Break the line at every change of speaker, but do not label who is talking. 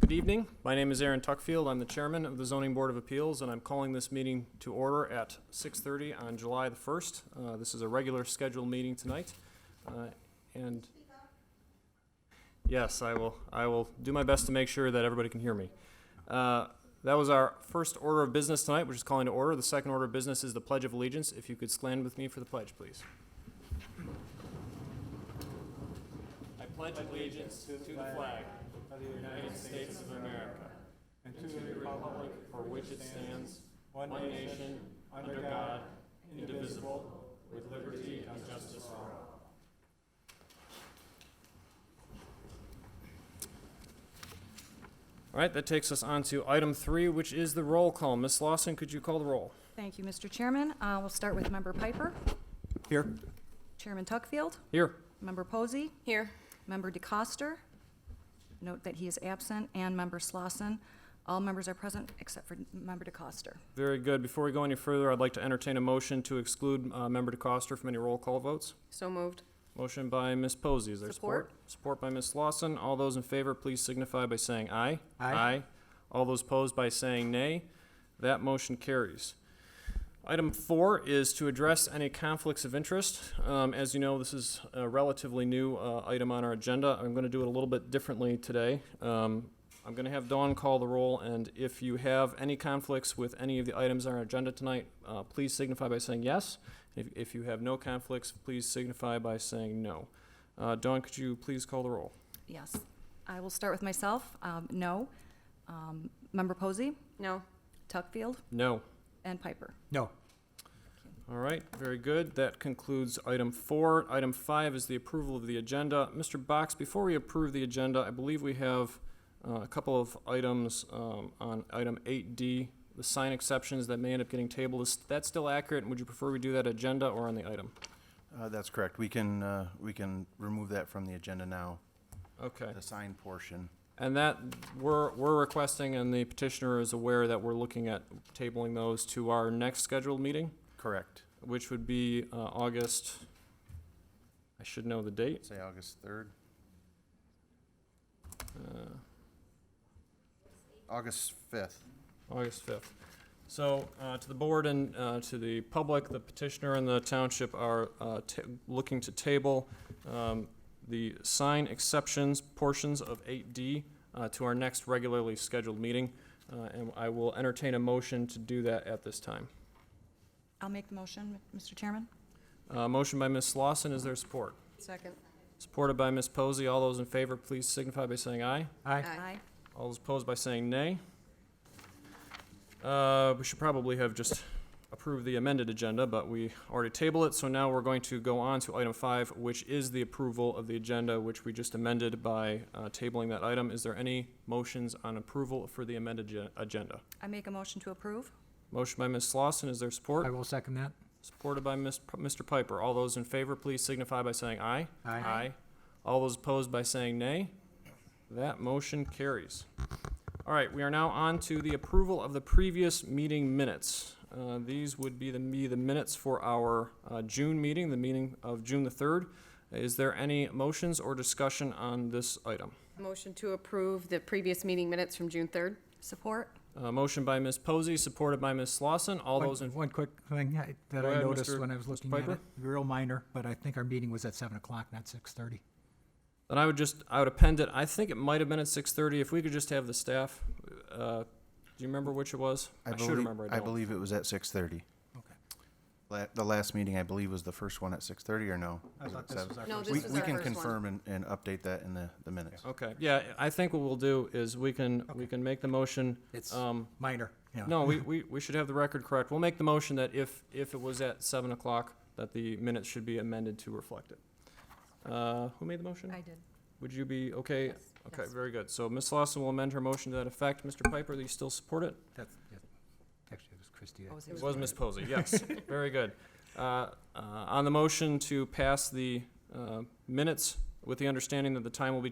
Good evening. My name is Aaron Tuckfield. I'm the chairman of the Zoning Board of Appeals, and I'm calling this meeting to order at 6:30 on July the 1st. Uh, This is a regular scheduled meeting tonight, uh, and... Yes, I will, I will do my best to make sure that everybody can hear me. Uh, That was our first order of business tonight, which is calling to order. The second order of business is the Pledge of Allegiance. If you could stand with me for the pledge, please. I pledge allegiance to the flag of the United States of America and to the republic for which it stands, one nation, under God, indivisible, with liberty and justice for all. All right, that takes us on to item three, which is the roll call. Ms. Lawson, could you call the roll?
Thank you, Mr. Chairman. Uh, We'll start with Member Piper,
Here.
Chairman Tuckfield,
Here.
Member Posey,
Here.
Member DeCoster, note that he is absent, and Member Slosson. All members are present except for Member DeCoster.
Very good. Before we go any further, I'd like to entertain a motion to exclude uh, Member DeCoster from any roll call votes.
So moved.
Motion by Ms. Posey, is there support? Support by Ms. Lawson. All those in favor, please signify by saying aye.
Aye.
All those opposed by saying nay. That motion carries. Item four is to address any conflicts of interest. Um, as you know, this is a relatively new, uh, item on our agenda. I'm gonna do it a little bit differently today. Um, I'm gonna have Dawn call the roll, and if you have any conflicts with any of the items on our agenda tonight, uh, please signify by saying yes. If, if you have no conflicts, please signify by saying no. Uh, Dawn, could you please call the roll?
Yes. I will start with myself, um, no. Um, Member Posey,
No.
Tuckfield,
No.
and Piper.
No.
All right, very good. That concludes item four. Item five is the approval of the agenda. Mr. Box, before we approve the agenda, I believe we have uh, a couple of items um, on item 8D, the sign exceptions that may end up getting tabled. Is that still accurate? And would you prefer we do that agenda or on the item?
Uh, That's correct. We can, uh, we can remove that from the agenda now,
Okay.
the sign portion.
And that, we're, we're requesting, and the petitioner is aware that we're looking at tabling those to our next scheduled meeting,
Correct.
which would be uh, August, I should know the date.
Say August 3rd,
Uh,
August 5th.
August 5th. So, uh, to the board and uh, to the public, the petitioner and the township are uh, ta- looking to table um, the sign exceptions portions of 8D uh, to our next regularly scheduled meeting, Uh, and I will entertain a motion to do that at this time.
I'll make the motion, Mr. Chairman.
Uh, Motion by Ms. Lawson, is there support?
Second.
Supported by Ms. Posey. All those in favor, please signify by saying aye.
Aye.
Uh,
Aye.
All those opposed by saying nay. Uh, We should probably have just approved the amended agenda, but we already tabled it, so now we're going to go on to item five, which is the approval of the agenda, which we just amended by uh, tabling that item. Is there any motions on approval for the amended ge- agenda?
I make a motion to approve.
Motion by Ms. Slauson, is there
I
support?
will second that.
Supported by Ms. P- Mr. Piper. All those in favor, please signify by saying aye.
Aye.
Aye. All those opposed by saying nay. That motion carries. All right, we are now on to the approval of the previous meeting minutes. Uh, These would be the, be the minutes for our uh, June meeting, the meeting of June the 3rd. Is there any motions or discussion on this item?
Motion to approve the previous meeting minutes from June 3rd.
Support.
Uh, Motion by Ms. Posey, supported by Ms. Slauson. All
One-
those in,
One quick thing I- that
Go
I
ahead,
noticed
Mr.
when I was
Mr.
looking at
Piper.
it, real minor, but I think our meeting was at seven o'clock, not six thirty.
then I would just, I would append it. I think it might have been at 6:30. If we could just have the staff, uh, do you remember which it was? I should
believe-
remember, I
I
don't.
believe it was at 6:30.
Okay.
La- The last meeting, I believe, was the first one at 6:30, or no?
I
Was it
thought this
seven?
was our
No,
first
this
We-
was
We
our
can
first one.
confirm and, and update that in the, the minutes.
Okay, yeah, I think what we'll do is we can, we can make the motion.
It's
um,
minor, yeah.
No, we, we, we should have the record correct. We'll make the motion that if, if it was at seven o'clock, that the minutes should be amended to reflect it. Uh, who made the motion?
I did.
Would you be okay? Okay,
yes.
very good. So Ms. Lawson will amend her motion to that effect. Mr. Piper, do you still support it?
That's, yeah. actually, it was Christie. that-
Posey
It
was
was Ms. Posey, yes. Very good. Uh, uh, on the motion to pass the, uh, minutes with the understanding that the time will be